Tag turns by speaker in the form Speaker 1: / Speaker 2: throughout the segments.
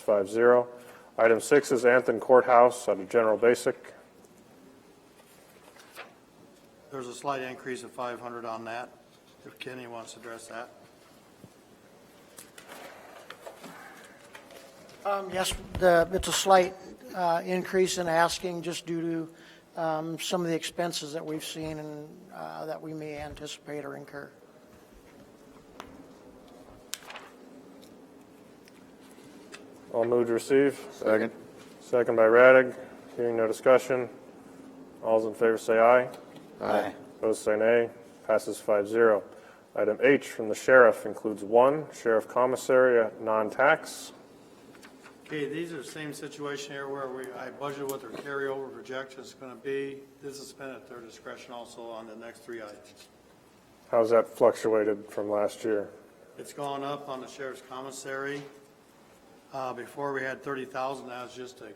Speaker 1: five zero. Item six is Anthem Courthouse under general basic.
Speaker 2: There's a slight increase of 500 on that, if Kenny wants to address that.
Speaker 3: Um, Yes, the- it's a slight uh, increase in asking just due to um, some of the expenses that we've seen and uh, that we may anticipate or incur.
Speaker 1: All moved to receive.
Speaker 4: Second.
Speaker 1: Second by Radig. Hearing no discussion. All's in favor say aye.
Speaker 4: Aye.
Speaker 1: Opposed say nay. Passes five zero. Item H from the sheriff includes one, sheriff commissary at non-tax.
Speaker 2: Okay, these are the same situation here where we, I budgeted what their carryover projection is going to be. This is spent at their discretion also on the next three items.
Speaker 1: How's that fluctuated from last year?
Speaker 2: It's gone up on the sheriff's commissary. Uh, Before, we had 30,000, that was just a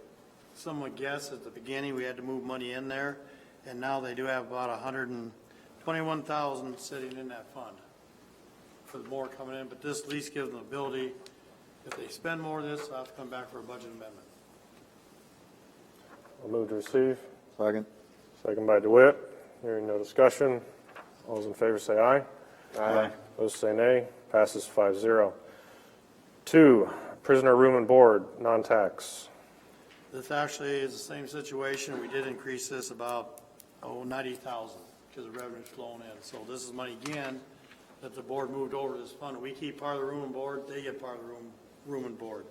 Speaker 2: somewhat guess at the beginning, we had to move money in there, and now they do have about 121,000 sitting in that fund for more coming in, but this lease gives them the ability, if they spend more of this, they'll have to come back for a budget amendment.
Speaker 1: All moved to receive.
Speaker 4: Second.
Speaker 1: Second by DeWitt. Hearing no discussion. All's in favor say aye.
Speaker 4: Aye.
Speaker 1: Opposed say nay. Passes five zero. Two, prisoner room and board, non-tax.
Speaker 2: This actually is the same situation. We did increase this about, oh, ninety thousand because the revenue's flowing in. So this is money again that the board moved over to this fund. We keep part of the room and board, they get part of the room, room and board.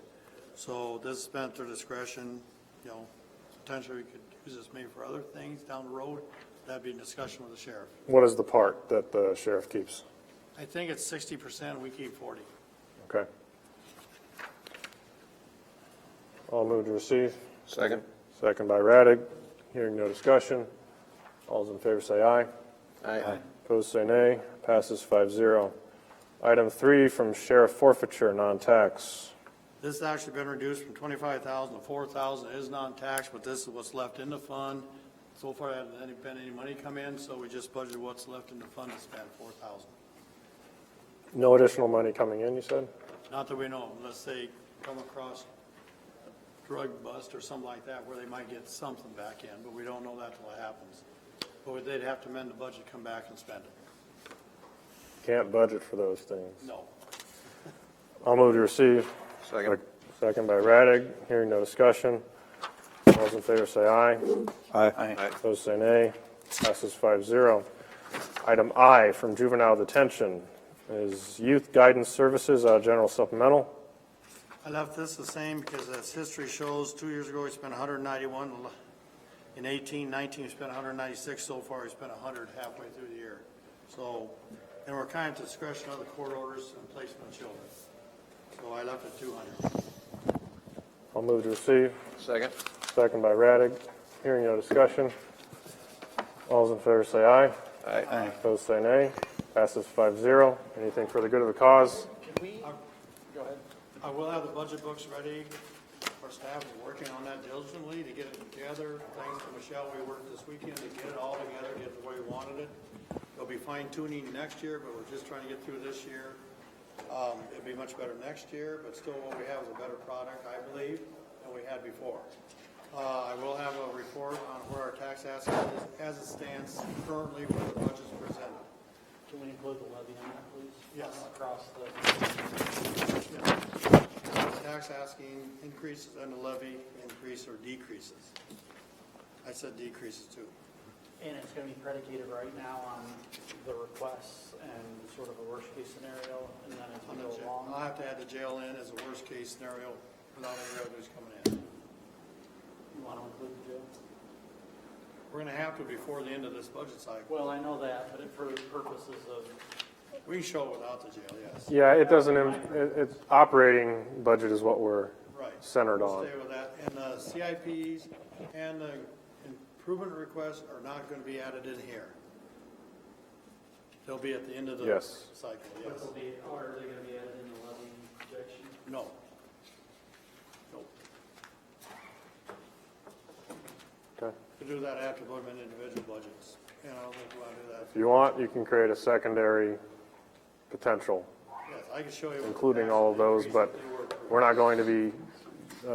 Speaker 2: So this is spent at their discretion, you know, potentially we could use this maybe for other things down the road. That'd be in discussion with the sheriff.
Speaker 1: What is the part that the sheriff keeps?
Speaker 2: I think it's sixty percent, we keep forty.
Speaker 1: Okay. All moved to receive.
Speaker 4: Second.
Speaker 1: Second by Raddick. Hearing no discussion. All's in favor say aye.
Speaker 4: Aye.
Speaker 1: Opposed say nay. Passes five zero. Item three from sheriff forfeiture, non-tax.
Speaker 2: This has actually been reduced from twenty-five thousand to four thousand, it is non-taxed, but this is what's left in the fund. So far, there hasn't any- been any money come in, so we just budgeted what's left in the fund to spend, four thousand.
Speaker 1: No additional money coming in, you said?
Speaker 2: Not that we know, of, unless they come across drug bust or something like that, where they might get something back in, but we don't know that till it happens. But they'd have to amend the budget, come back and spend it.
Speaker 1: Can't budget for those things.
Speaker 2: No.
Speaker 1: I'll move to receive.
Speaker 4: Second.
Speaker 1: Second by Raddick. Hearing no discussion. All's in favor say aye.
Speaker 4: Aye.
Speaker 1: Opposed say nay. Passes five zero. Item I from juvenile detention is youth guidance services, uh, general supplemental.
Speaker 2: I left this the same because as history shows, two years ago, we spent hundred and ninety-one. In eighteen, nineteen, we spent hundred and ninety-six. So far, we spent hundred halfway through the year. So, and we're kind of at discretion of the court orders and placement of children. So I left it two hundred.
Speaker 1: I'll move to receive.
Speaker 4: Second.
Speaker 1: Second by Raddick. Hearing no discussion. All's in favor say aye.
Speaker 4: Aye.
Speaker 1: Opposed say nay. Passes five zero. Anything for the good of the cause?
Speaker 2: I will have the budget books ready. Our staff is working on that diligently to get it together. Thanks to Michelle, we worked this weekend to get it all together, get it the way we wanted it. There'll be fine tuning next year, but we're just trying to get through this year. Um, it'll be much better next year, but still what we have is a better product, I believe, than we had before. Uh, I will have a report on where our tax asset is as it stands currently where the budget's presented.
Speaker 5: Can we include the levy on that, please?
Speaker 2: Yes.
Speaker 5: Across the,
Speaker 2: Tax asking increases and the levy increase or decreases. I said decreases too.
Speaker 5: and it's gonna be predicated right now on the requests and sort of a worst-case scenario, and then as
Speaker 2: On
Speaker 5: we
Speaker 2: the
Speaker 5: go
Speaker 2: jail- I'll
Speaker 5: along.
Speaker 2: have to add the jail in as a worst-case scenario without any revenues coming in.
Speaker 5: You wanna include the jail?
Speaker 2: We're gonna have to before the end of this budget cycle.
Speaker 5: Well, I know that, but for purposes of,
Speaker 2: We can show it without the jail, yes.
Speaker 1: Yeah, it doesn't, im- it, it's, operating budget is what we're
Speaker 2: Right.
Speaker 1: centered
Speaker 2: We'll
Speaker 1: on.
Speaker 2: Stay with that. And the CIPs and the improvement requests are not gonna be added in here. They'll be at the end of the
Speaker 1: Yes.
Speaker 2: cycle,
Speaker 5: what
Speaker 2: yes.
Speaker 5: will be, or are they gonna be added in the levy projection?
Speaker 2: No. Nope.
Speaker 1: Okay.
Speaker 2: To do that after voting on individual budgets, and I don't think we'll do that.
Speaker 1: If you want, you can create a secondary potential,
Speaker 2: Yes, I can show you. what the
Speaker 1: including all of
Speaker 2: actual
Speaker 1: those,
Speaker 2: increases
Speaker 1: but
Speaker 2: they were.
Speaker 1: we're not going to be